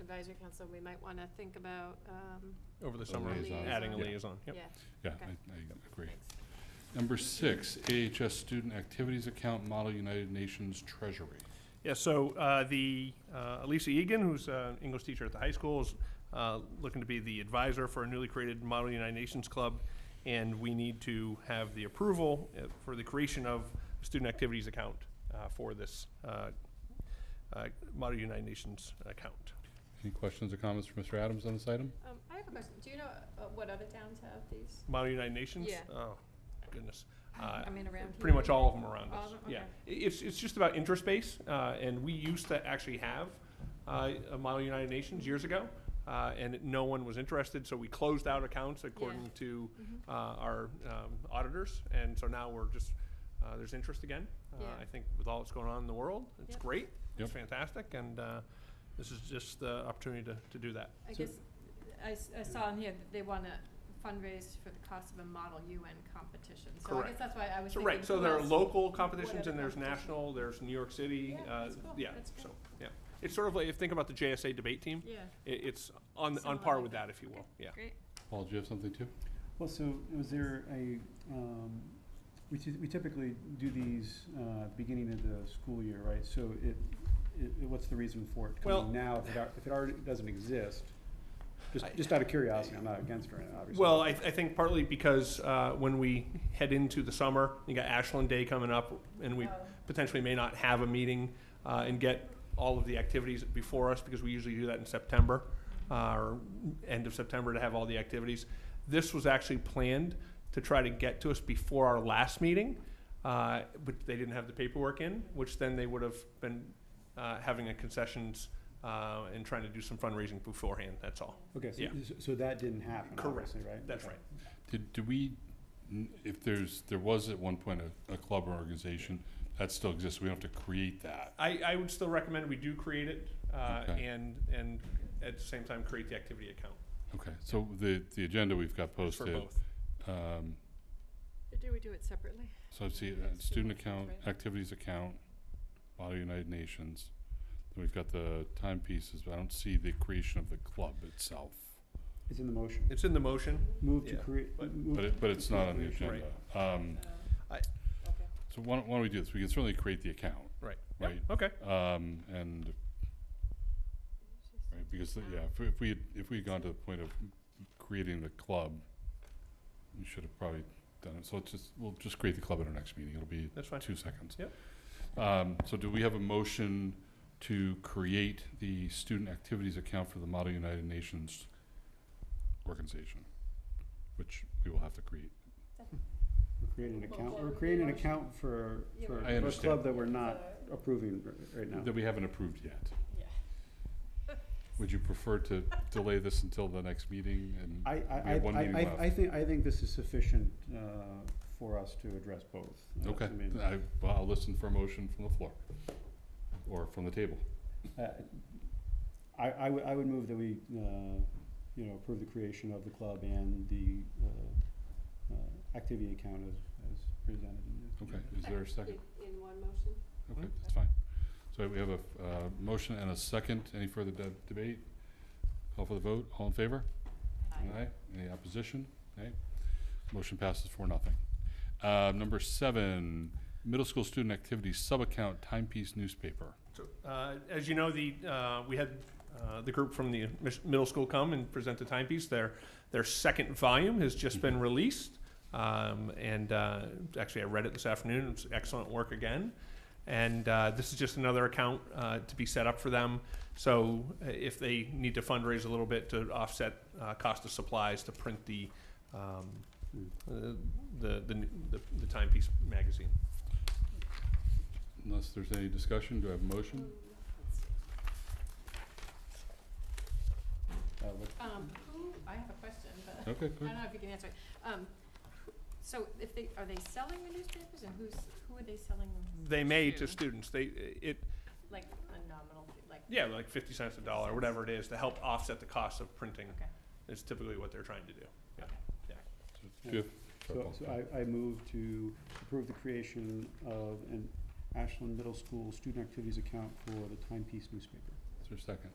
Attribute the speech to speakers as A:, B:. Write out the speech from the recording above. A: advisory council, we might want to think about, um,
B: over the
C: A
B: summer,
A: liaison.
B: adding a
C: Yeah.
B: liaison, yep.
A: yeah,
C: Yeah,
A: Okay.
C: I, I agree.
A: thanks.
C: Number six, AHS Student Activities Account Model United Nations Treasury.
B: Yeah, so uh, the uh, Elisa Egan, who's an English teacher at the high school, is uh, looking to be the advisor for a newly created Model United Nations Club, and we need to have the approval uh, for the creation of a student activities account uh, for this uh, uh, Model United Nations account.
C: Any questions or comments for Mr. Adams on this item?
A: Um, I have a question. Do you know uh, what other towns have these?
B: Model United Nations?
A: Yeah.
B: Oh, goodness. Uh,
A: I mean, around here?
B: Pretty much all of them around
A: All
B: us.
A: of 'em?
B: Yeah,
A: Okay.
B: I- it's, it's just about interest base, uh, and we used to actually have uh, a Model United Nations years ago, uh, and it- no one was interested, so we closed out accounts according to
A: Mhm.
B: uh, our um, auditors, and so now we're just, uh, there's interest again. Uh,
A: Yeah.
B: I think with all that's going on in the world, it's
A: Yep.
B: great, it's
C: Yep.
B: fantastic, and uh, this is just the opportunity to, to do that.
A: I
B: So-
A: guess, I, s- I saw in here that they want to fundraise for the cost of a Model UN competition. So I guess
B: Correct.
A: that's why I was
B: So,
A: thinking.
B: right, so
A: who
B: there are
A: else-
B: local
A: what
B: competitions
A: other
B: and there's
A: competitions?
B: national, there's New York City,
A: Yeah,
B: uh,
A: that's cool.
B: yeah,
A: That's
B: so,
A: great.
B: yeah. It's sort of like, if, think about the JSA debate team,
A: Yeah,
B: it, it's on, on
A: Similar
B: par
A: like
B: with
A: that.
B: that, if you will,
A: Okay.
B: yeah.
A: great.
C: Paul, do you have something too?
D: Well, so was there a, um, we ty- we typically do these, uh, beginning of the school year, right? So it, it, it- what's the reason for it
B: Well-
D: coming now, if it, al- if it already doesn't exist? Just,
B: I-
D: just out of curiosity, I'm not against it, obviously.
B: Well, I, I think partly because, uh, when we head into the summer, you got Ashland Day coming up, and we
A: Oh.
B: potentially may not have a meeting, uh, and get all of the activities before us, because we usually do that in September, uh, or end of September to have all the activities. This was actually planned to try to get to us before our last meeting, uh, but they didn't have the paperwork in, which then they would have been, uh, having a concessions, uh, and trying to do some fundraising beforehand, that's all.
D: Okay, so,
B: yeah.
D: so- so that didn't happen,
B: Correct.
D: obviously, right?
B: That's
D: Okay.
B: right.
C: Did, do we, n- if there's, there was at one point a, a club or organization, that still exists, we don't have to create that.
B: I, I would still recommend we do create it, uh,
C: Okay.
B: and, and at the same time, create the activity account
C: Okay, so the, the agenda we've got
B: for
C: posted.
B: both.
C: um,
A: Do we do it separately?
C: So I see
A: Yeah,
C: uh,
A: student
C: student account,
A: accounts, right.
C: activities account, Model United Nations. Then we've got the timepieces, but I don't see the creation of the club itself.
D: It's in the motion.
B: It's in the motion.
D: Move to
B: Yeah,
D: create.
B: but-
D: move
C: But it, but
D: to
C: it's not
D: create
C: on the
D: motion.
C: agenda. Um, so why don't, why don't we do this? We can certainly create the account.
B: Right.
C: Right,
B: Okay.
C: um, and, right, because, the- yeah, if, we- if we, had- if we had gone to the point of creating the club, we should have probably done it. So let's just, we'll just create the club at our next meeting. It'll be
B: That's fine.
C: Two seconds.
B: Yep.
C: Um, so do we have a motion to create the student activities account for the Model United Nations organization? Which we will have to create.
D: We're creating an account,
A: Well,
D: we're creating an
A: motion.
D: account for,
A: Yeah,
D: for
A: but-
C: I
D: a
C: understand.
D: club that we're not approving r- right now.
C: That we haven't approved yet.
A: Yeah.
C: Would you prefer to delay this until the next meeting and?
D: I, I,
C: We have one
D: I-
C: meeting
D: I-
C: left.
D: I think, I think this is sufficient uh, for us to address both. Uh,
C: Okay,
D: I mean,
C: I, well, I'll listen for a motion from the floor, or from the table.
D: uh, I, I would, I would move that we, uh, you know, approve the creation of the club and the uh, uh, activity account as, as presented. in the-
C: Okay, is there a second?
A: In one motion?
C: Okay, that's fine. So we have a, uh, motion and a second. Any further de- debate? Call for the vote. All in favor? Aye. Any opposition? Aye. Motion passes for nothing. Uh, number seven, middle school student activities sub-account timepiece newspaper.
B: So, uh, as you know, the, uh, we had, uh, the group from the mis- middle school come and present the timepiece. Their, their second volume has just been released. Um, and, uh, actually I read it this afternoon. It's excellent work again. And, uh, this is just another account, uh, to be set up for them. So uh, if they need to fundraise a little bit to offset, uh, cost of supplies to print the, um,
D: Hmm.
B: uh, the, the, the- the timepiece magazine.
C: Unless there's any discussion, do I have a motion?
D: Uh, what-
A: Um, who, I have a question, but
C: Okay,
A: I
C: good.
A: don't
D: Uh,
A: know if you can answer it. Um, who- so if they, are they selling the newspapers and who's, who are they selling them?
B: They may to
A: Shoot.
B: students, they, it,
A: Like a nominal, fee, like,
B: Yeah, like fifty cents a dollar, whatever it is, to help offset the cost of printing
A: okay.
B: is typically what they're trying to do. Yeah.
C: So do you have-
D: So, so I, I move to approve the creation of an Ashland Middle School student activities account for the timepiece newspaper.
C: Is there a second?